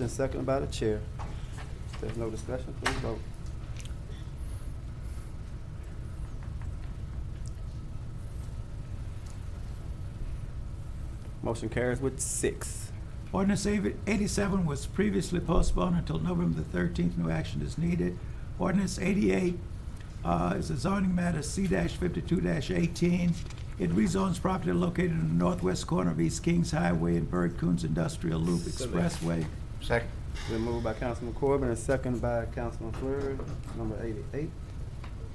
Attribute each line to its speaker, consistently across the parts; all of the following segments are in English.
Speaker 1: Then second by the chair. If there's no discussion, please vote. Motion carries with six.
Speaker 2: Ordinance eighty- 87 was previously postponed until November the 13th. No action is needed. Ordinance 88 uh, is a zoning matter C-52-18. It rezones property located in the northwest corner of East Kings Highway and Bird Coons Industrial Loop Expressway.
Speaker 3: Second.
Speaker 1: Been moved by Councilman Corbin and second by Councilman Fleury, number eighty-eight.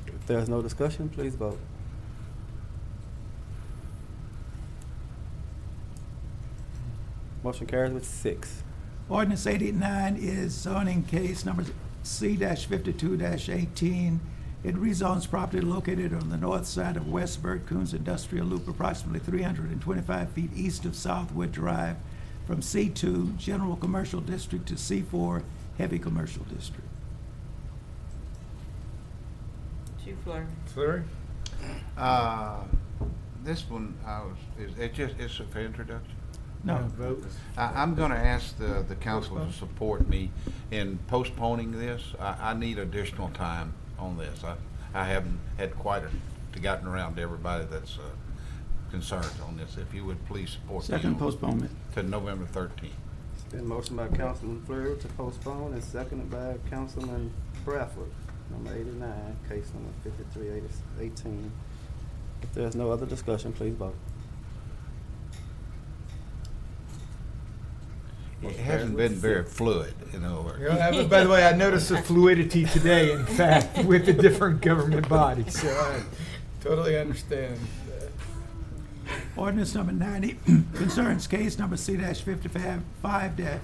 Speaker 1: If there's no discussion, please vote. Motion carries with six.
Speaker 2: Ordinance 89 is zoning case number C-52-18. It rezones property located on the north side of West Bird Coons Industrial Loop, approximately 325 feet east of Southwood Drive, from C2 General Commercial District to C4 Heavy Commercial District.
Speaker 4: Chief Flurry.
Speaker 3: Flurry? Uh, this one, I was, is, it just, it's for introduction.
Speaker 2: No,
Speaker 3: I, I'm gonna ask the, the council to support me in postponing this. I, I need additional time on this. I, I haven't had quite a, gotten around to everybody that's, uh, concerned on this. If you would please support me
Speaker 2: second
Speaker 3: on-
Speaker 2: postponement.
Speaker 3: to November thirteenth.
Speaker 1: It's been motioned by Councilman Fleury to postpone and seconded by Councilman Bradford, number eighty-nine, case number fifty-three eighteen. If there's no other discussion, please vote.
Speaker 3: It hasn't been very fluid, in other words.
Speaker 5: You know, I- by the way, I noticed the fluidity today, in fact, with the different government bodies, so I totally understand.
Speaker 2: Ordinance number 90 concerns case number C-55-18.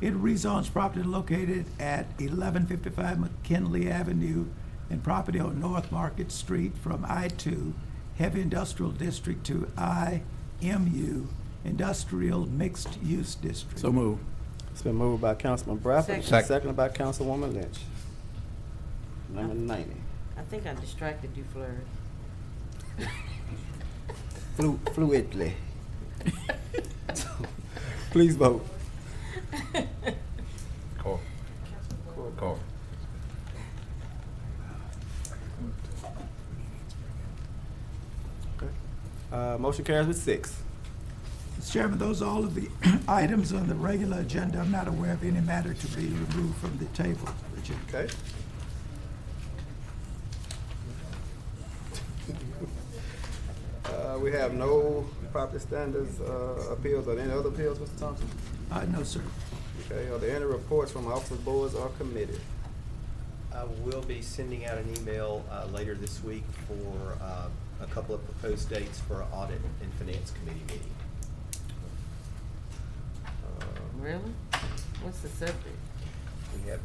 Speaker 2: It rezones property located at 1155 McKinley Avenue and property on North Market Street from I-2 Heavy Industrial District to IMU Industrial Mixed Use District.
Speaker 6: So move.
Speaker 1: It's been moved by Councilman Bradford, and
Speaker 3: Second.
Speaker 1: seconded by Councilwoman Lynch. Number ninety.
Speaker 4: I think I distracted you, Flurry.
Speaker 1: Flu- Fluidly. Please vote.
Speaker 3: Cor- Cor-
Speaker 1: Uh, motion carries with six.
Speaker 2: Mr. Chairman, those are all of the items on the regular agenda. I'm not aware of any matter to be removed from the table. agenda.
Speaker 1: Okay. Uh, we have no property standards, uh, appeals or any other appeals, Mr. Thompson?
Speaker 2: Uh, No, sir.
Speaker 1: Okay, are there any reports from officers, boards, or committees?
Speaker 7: I will be sending out an email uh, later this week for uh, a couple of proposed dates for our audit and finance committee meeting. Uh,
Speaker 4: Really? What's the subject?
Speaker 7: We have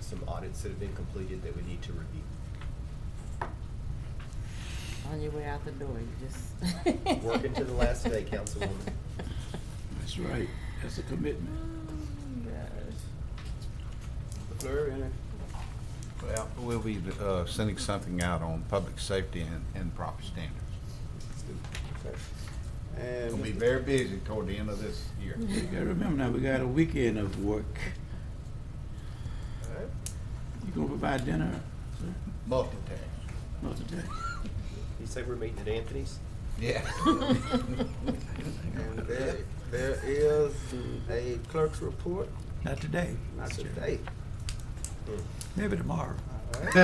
Speaker 7: some audits that have been completed that we need to review.
Speaker 4: On your way out the door, you just.
Speaker 7: Working to the last day, Councilwoman.
Speaker 6: That's right. That's a commitment.
Speaker 1: Fleur, any?
Speaker 3: Well, we'll be uh, sending something out on public safety and, and proper standards.
Speaker 1: Okay.
Speaker 3: It'll be
Speaker 1: And,
Speaker 3: very busy toward the end of this year.
Speaker 2: Mm-hmm.
Speaker 6: You gotta remember now, we got a weekend of work.
Speaker 1: all right.
Speaker 6: You gonna provide dinner, sir?
Speaker 3: Multitask.
Speaker 6: Not today.
Speaker 7: You say we're meeting at Anthony's?
Speaker 3: Yeah.
Speaker 1: And there, there is a clerk's report,
Speaker 2: Not today.
Speaker 1: not
Speaker 2: Mr. Chairman.
Speaker 1: today.
Speaker 2: Maybe tomorrow.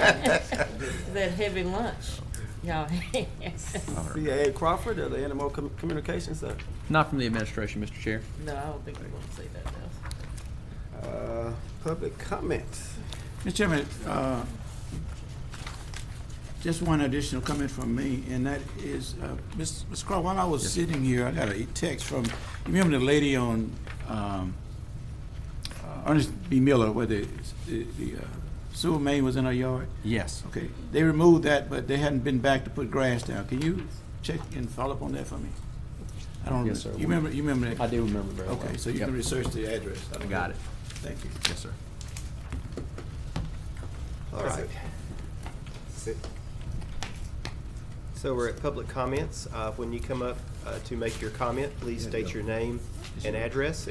Speaker 4: That heavy lunch, y'all. had.
Speaker 1: CAA Crawford, are there any more com- communications, sir?
Speaker 8: Not from the administration, Mr. Chair.
Speaker 4: No, I don't think we want to say that now.
Speaker 1: Uh, public comments.
Speaker 6: Mr. Chairman, uh, just one additional comment from me, and that is, uh, Ms. Ms. Craw, while I was sitting here, I got a text from, you remember the lady on um, uh, Ernest B. Miller, where the the- the, uh, sewer main was in her yard?
Speaker 8: Yes.
Speaker 6: Okay, they removed that, but they hadn't been back to put grass down. Can you check and follow up on that for me? I don't,
Speaker 8: Yes,
Speaker 6: remember.
Speaker 8: sir.
Speaker 6: you remember, you remember that?
Speaker 8: I do remember very well.
Speaker 6: Okay, so you
Speaker 8: Yep.
Speaker 6: can research the address. I don't
Speaker 8: Got
Speaker 6: know.
Speaker 8: it.
Speaker 6: Thank you.
Speaker 8: Yes, sir.
Speaker 1: All right.
Speaker 7: So we're at public comments. Uh, When you come up uh, to make your comment, please state your name and address,